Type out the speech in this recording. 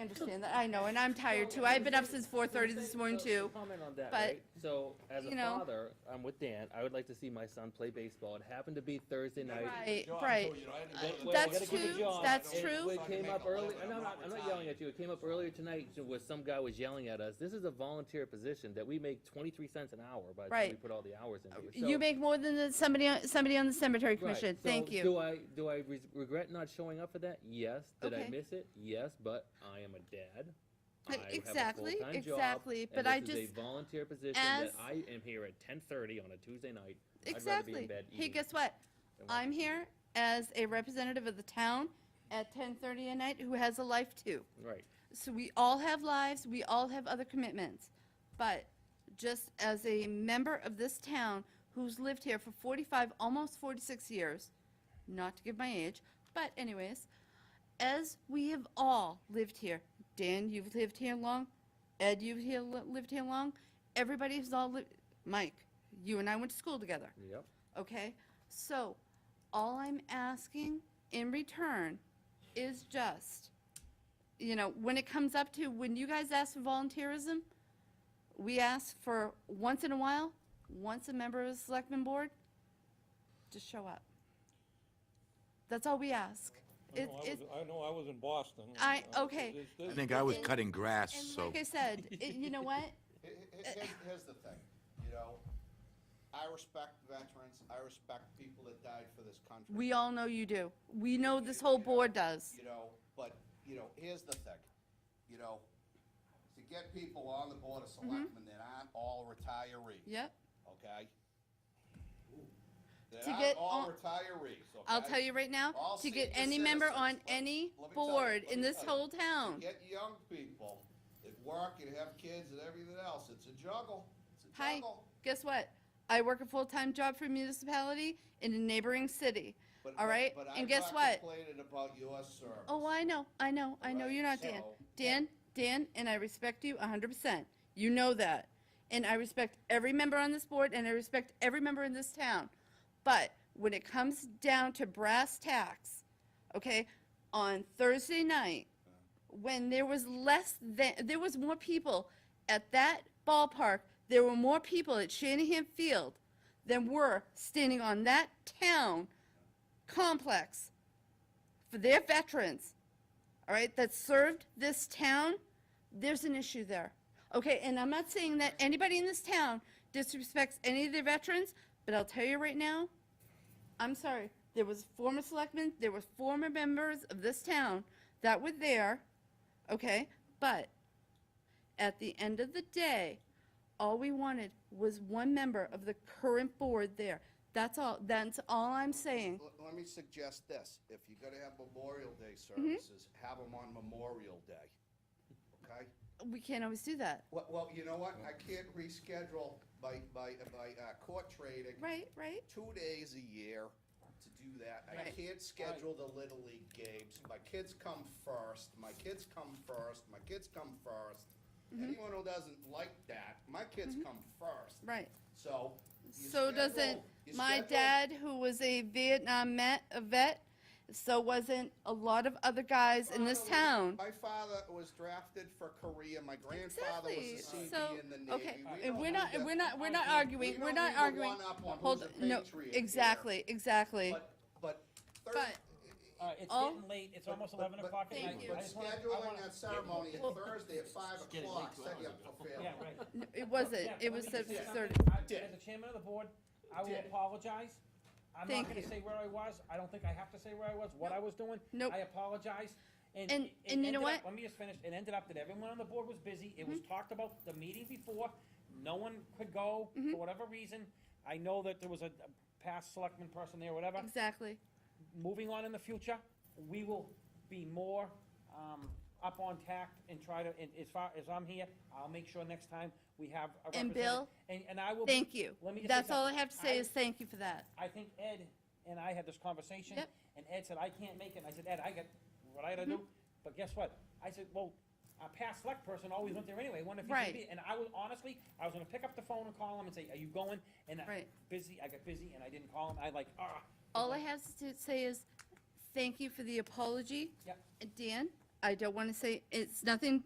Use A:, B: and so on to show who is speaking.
A: understand that, I know, and I'm tired too. I've been up since four thirty this morning
B: So-
A: too.
B: Comment on that,
A: but,
B: right? So, as a
A: you know-
B: father, I'm with Dan, I would like to see my son play baseball. It happened to be Thursday night.
A: Right,
C: John
A: right.
C: told you, I had to
B: Uh,
C: go to the-
B: well, we
A: That's
B: gotta keep it
A: true,
B: John.
A: that's
B: And
A: true.
B: It came up
C: Fucking make
B: early,
C: eleven,
B: and I'm not, I'm not yelling at you, it came up earlier tonight where some guy was yelling at us. This is a volunteer position that we make twenty-three cents an hour by the time we
A: Right.
B: put all the hours in here.
A: You
B: So-
A: make more than the- somebody, on- somebody on the cemetery
B: Right,
A: commission,
B: so
A: thank
B: Do
A: you.
B: I, do I re- regret not showing up for that? Yes. Did I
A: Okay.
B: miss it? Yes, but I am a dad. I
A: Uh,
B: have a
A: exactly,
B: full-time job,
A: exactly,
B: and
A: but I
B: this is a
A: just-
B: volunteer position that
A: as-
B: I am here at ten thirty on a Tuesday night. I'd rather be in
A: Exactly.
B: bed
A: Hey,
B: eating
A: guess what?
B: than watching
A: I'm
B: TV.
A: here as a representative of the town at ten thirty at night who has a life too.
B: Right.
A: So we all have lives, we all have other commitments. But just as a member of this town who's lived here for 45, almost 46 years, not to give my age, but anyways, as we have all lived here, Dan, you've lived here long, Ed, you've here, lived here long, everybody has all lived, Mike, you and I went to school together
B: Yep.
A: okay? So, all I'm asking in return is just, you know, when it comes up to, when you guys ask for volunteerism, we ask for once in a while, once a member of the selectman board, just show up. That's all we ask.
D: I
A: It,
D: know I
A: it,
D: was- I know I was in Boston.
A: I-
D: and, uh,
A: okay.
D: this-
E: I
D: this-
E: think I was
A: And-
E: cutting grass,
A: and
E: so.
A: like I said, it- you know what?
C: He- he- Here's, here's the thing, you know, I respect veterans, I respect people that died for this country.
A: We all know you do. We know this whole board does.
C: You know, but, you know, here's the thing, you know, to get people on the board of
A: Mm-hmm.
C: selectmen that aren't all retirees.
A: Yep.
C: Okay?
A: To
C: That aren't
A: get
C: all
A: on-
C: retirees, okay?
A: I'll tell you right now,
C: All
A: to get
C: senior
A: any member
C: citizens,
A: on
C: let-
A: any
C: let me tell you,
A: board
C: let
A: in
C: me
A: this
C: tell you.
A: whole town.
C: Get young people that work and have kids and everything else, it's a juggle, it's a
A: Hi,
C: juggle.
A: guess what? I work a full-time job for a municipality in a neighboring city,
C: But-
A: all
C: but-
A: right?
C: but
A: And
C: I'm
A: guess
C: not
A: what?
C: Complaining about your service.
A: Oh, I know, I know, I know,
C: Right,
A: you're not Dan.
C: so-
A: Dan, Dan, and I respect you hundred percent. You know that. And I respect every member on this board and I respect every member in this town. But when it comes down to brass tacks, okay, on Thursday night, when there was less than, there was more people at that ballpark, there were more people at Shanahan Field than were standing on that town complex for their veterans, all right, that served this town, there's an issue there. Okay, and I'm not saying that anybody in this town disrespects any of their veterans, but I'll tell you right now, I'm sorry, there was former selectmen, there were former members of this town that were there, okay? But at the end of the day, all we wanted was one member of the current board there. That's all, that's all I'm saying.
C: L- Let me suggest this, if you're gonna have Memorial Day
A: Mm-hmm.
C: services, have them on Memorial Day, okay?
A: We can't always do that.
C: Well, well, you know what, I can't reschedule my, my, my uh, court training
A: Right, right.
C: two days a year to do that. I
A: Right.
C: can't schedule the Little League games, my kids come first, my kids come first, my kids come first.
A: Mm-hmm.
C: Anyone who doesn't like that, my kids come first.
A: Right.
C: So. you
A: So doesn't,
C: schedule- you
A: my
C: schedule-
A: dad, who was a Vietnam vet, a vet, so wasn't a lot of other guys in this town.
C: My father was drafted for Korea. My grandfather
A: Exactly,
C: was a CB
A: so,
C: in the Navy.
A: okay, and
C: We don't
A: we're not,
C: need to-
A: we're not, we're not
C: we
A: arguing, we're
C: don't
A: not
C: need to
A: arguing.
C: one up on
A: Hold,
C: who's a
A: no,
C: patriot here.
A: exactly, exactly.
C: But, but. thir-
A: But-
F: All right, Uh, it's
A: Oh.
F: getting late, it's
C: but-
F: almost
C: but-
F: eleven
C: but-
F: o'clock at
A: Thank
F: night.
A: you.
F: I
C: But
F: just wanna- I
C: scheduling
F: wanna-
C: that ceremony Thursday at five o'clock set you up for failure.
F: Yeah, right.
A: It wasn't,
F: Yeah,
A: it
F: let
A: was
F: me just
A: six
F: say something.
A: thirty.
F: I-
C: Dick.
F: As the chairman of the board, I will
C: Dick.
F: apologize. I'm
A: Thank
F: not gonna
A: you.
F: say where I was, I don't think I have to say where I was, what I was doing.
A: Nope.
F: I apologize.
A: And-
F: it
A: and you know
F: ended up-
A: what? Mm-hmm.
F: Let me just finish, it ended up that everyone on the board was busy, it was talked about the meeting before, no one could go
A: Mm-hmm.
F: for whatever reason. I know that there was a a past selectman person there, whatever.
A: Exactly.
F: moving on in the future, we will be more um, up on tact and try to, and as far as I'm here, I'll make sure next time we have a
A: And
F: representative.
A: Bill,
F: And, and I will. be-
A: Thank you.
F: Let me just say
A: That's all I
F: something.
A: have to say is thank you for that.
F: I think Ed and I had this conversation.
A: Yep.
F: And Ed said, I can't make it. And I said, Ed, I got what I gotta do.
A: Mm-hmm.
F: But guess what? I said, well, a past select person always went there anyway, wonder if he
A: Right.
F: could be. And I was, honestly, I was gonna pick up the phone and call him and say, are you going? And I-
A: Right.
F: busy, I got busy and I didn't call him. I like, ah.
A: All I have to say is, thank you for the apology.
F: Yep.
A: And Dan, I don't want to say, it's nothing